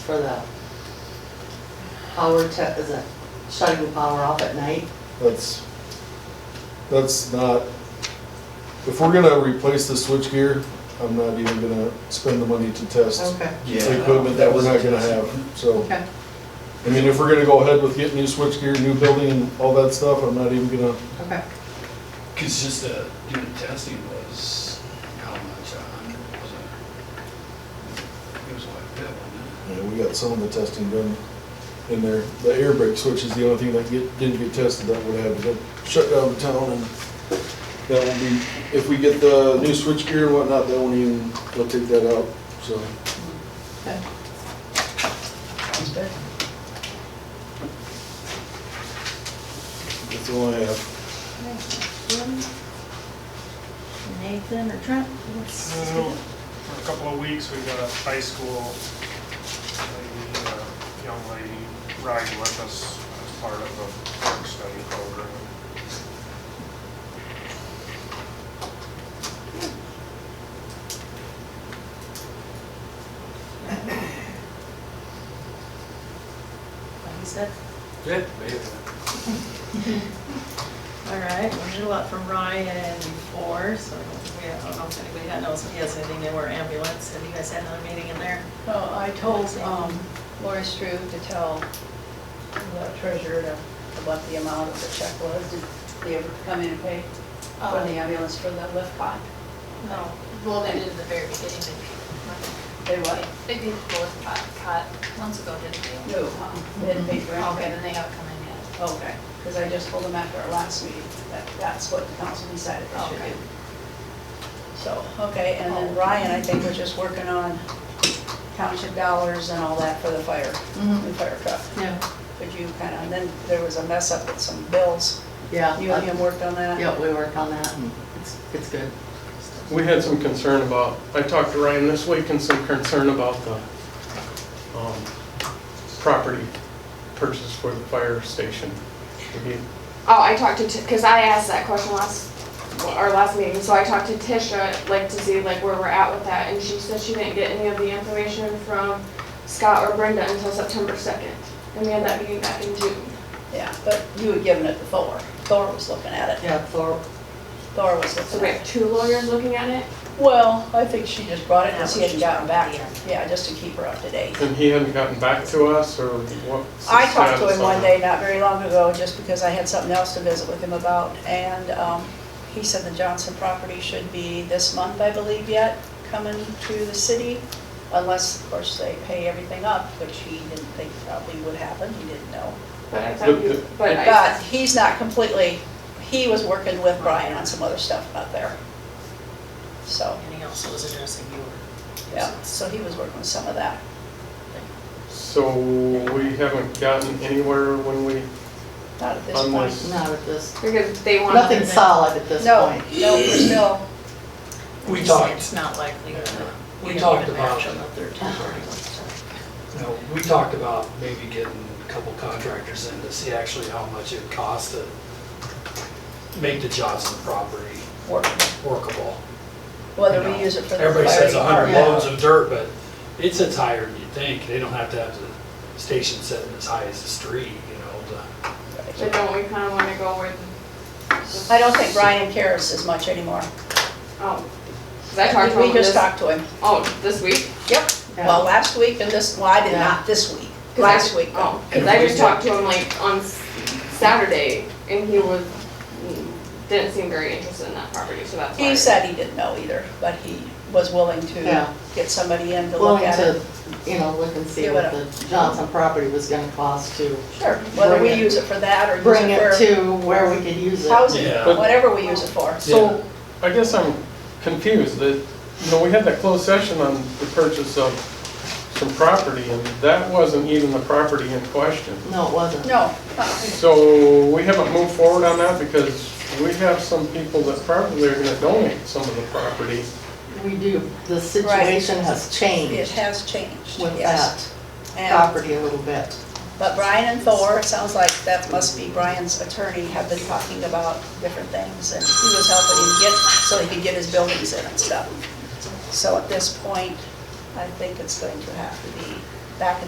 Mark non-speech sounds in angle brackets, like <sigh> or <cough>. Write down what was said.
for the power to, is it shutting the power off at night? That's, that's not, if we're gonna replace the switchgear, I'm not even gonna spend the money to test Okay. the equipment that we're not gonna have, so. Okay. I mean, if we're gonna go ahead with getting new switchgear, new building and all that stuff, I'm not even gonna, Okay. Because just the unit testing was how much, a hundred, was it? It was like that, wasn't you know, we got some of the testing done in there. The air brake switch is the only thing that get, didn't get tested, that would have been shut down the town and that will be, if we get the new switchgear and whatnot, that won't even, they'll take that out, so. Okay. it? That's all I have. Nathan or Trent? Well, Mm. For a couple of weeks, we got a high school lady, uh, young lady riding with us as part of a work study program. He's good. Good, maybe. <laughs> All right, we did a lot from Ryan before, so I don't think we- I don't know if anybody got knows if he has anything they were ambulance. Have you guys had another meeting in there? Well, I told um, Laura Struve to tell the treasurer to- what the amount of the check was. Did they ever come in and pay for Oh. the ambulance for the lift bond? No, well, they did at the very beginning, They they, what? they did both pot, pot months ago, didn't they? No, huh? Um, They didn't pay for Okay, anything? then they haven't come in yet. Okay, because I just told them after our last meeting that that's what the council decided they should Okay. Oh. do. So, okay, and then Ryan, I think, was just working on township dollars and all that for the fire, Mm-hmm. the fire truck. Yeah. Could you kind of, and then there was a mess up with some bills. Yeah. You and him worked on that? Yeah, we work on that and it's, it's good. We had some concern about, I talked to Ryan this week and some concern about the um, property purchase for the fire station. Would you- Oh, I talked to, because I asked that question last, our last meeting, so I talked to Tisha, like, to see, like, where we're at with that, and she said she didn't get any of the information from Scott or Brenda until September second, and we had that meeting back in June. Yeah, but you had given it to Thor. Thor was looking at it. Yeah, Thor, Thor was So looking we at have it. two lawyers looking at it. Well, I think she just brought it That because he was hadn't just gotten back. the end. Yeah, just to keep her up to date. And he hadn't gotten back to us or what? I talked to him one day, not very long ago, just because I had something else to visit with him about. And um, he said the Johnson property should be this month, I believe, yet, coming to the city. Unless, of course, they pay everything up, which he didn't think probably would happen. He didn't know. But I Look, thought you, the- but I, But he's not completely, he was working with Brian on some other stuff out there. So, Anything else that was addressing you or? yeah, so he was working with some of that. So we haven't gotten anywhere when we, Not at this On point. this- not at this, because they wanted. nothing solid at this No, point. no, we're still, We Just say talked. It's not likely. that We don't talked get about match on the third party. No, we talked about maybe getting a couple contractors in to see actually how much it would cost to make the Johnson property working, workable. whether You know, we use it for the fire Everybody says a hundred department. loads of dirt, but it sits higher than you think. They don't have to have the station sitting as high as the street, you know, to. But don't we kinda wanna go with? the- I don't think Brian cares as much anymore. Oh, 'cause I talked to We him just this, talked to him. oh, this week? Yep, Yeah. well, last week and this, well, I did Yeah. not this week, Last last week. though. Oh, cause I just talked to him like on s- Saturday, and he was, didn't seem very interested in that property, so that's why. He said he didn't know either, but he was willing Yeah. to get somebody in to look Willing at it. to, you know, look and see Give what it the Johnson property was gonna cost to Sure, whether we Bring it- use it for that or use it for. bring it to where we could use it. housing, Yeah. whatever we use it for. so I guess I'm confused that, you know, we had that closed session on the purchase of some property and that wasn't even the property in question. No, it wasn't. No, So we haven't moved forward on that because we have some people that probably are gonna donate some of the property. We do, the situation has it changed has changed, with yes. that And- property a little bit. But Brian and Thor, it sounds like that must be Brian's attorney, have been talking about different things, and he was helping him get, so he could get his buildings in and stuff. So at this point, I think it's going to have to be back in